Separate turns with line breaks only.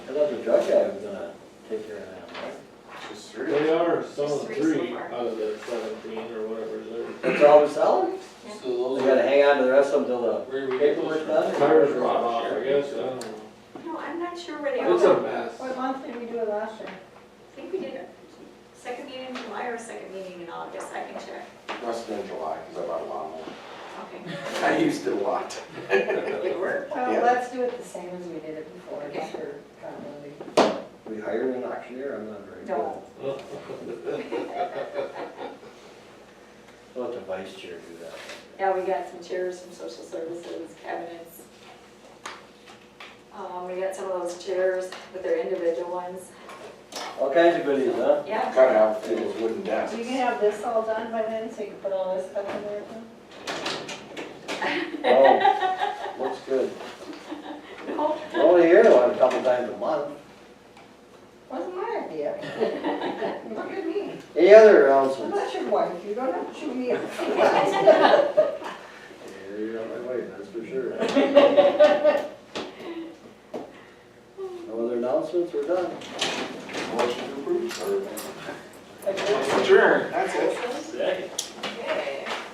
I thought the drug guy was gonna take care of that, right?
It's three.
They are selling
There's three so
three
far.
out of the seventeen or whatever they're.
That's all we're selling?
So
We
those
gotta
are.
hang on to the rest of them till the
Where we get
paperwork's
those
done?
from?
Tires rot off, I guess, I don't know.
No, I'm not sure where they
It's a
are. I
mess.
What month did we do it last year?
think we did a second meeting in July or a second meeting in August, I can check.
Must have been July, because I bought a lawnmower.
Okay.
I used it a lot.
They were.
Well,
Yeah.
Oh, let's do it the same as we did it before, just for continuity.
We hired an auctioneer, I'm not very good.
Don't.
We'll let the vice chair do that.
Yeah, we got some chairs from social services, cabinets. Um, we got some of those chairs, but they're individual ones.
All kinds of goodies, huh?
Yeah,
Gotta have a few of those wooden
So
desks.
you can have this all done by then, so you can put all this stuff in there?
Oh, looks good.
no,
We're Only here one a couple times a month.
Wasn't my idea. Look at me,
Any other
I'm
announcements?
not your wife, you don't have to chew me up.
Yeah, You're on my way, that's for sure. No other announcements, we're done.
Motion to approve, or?
Like,
Sure.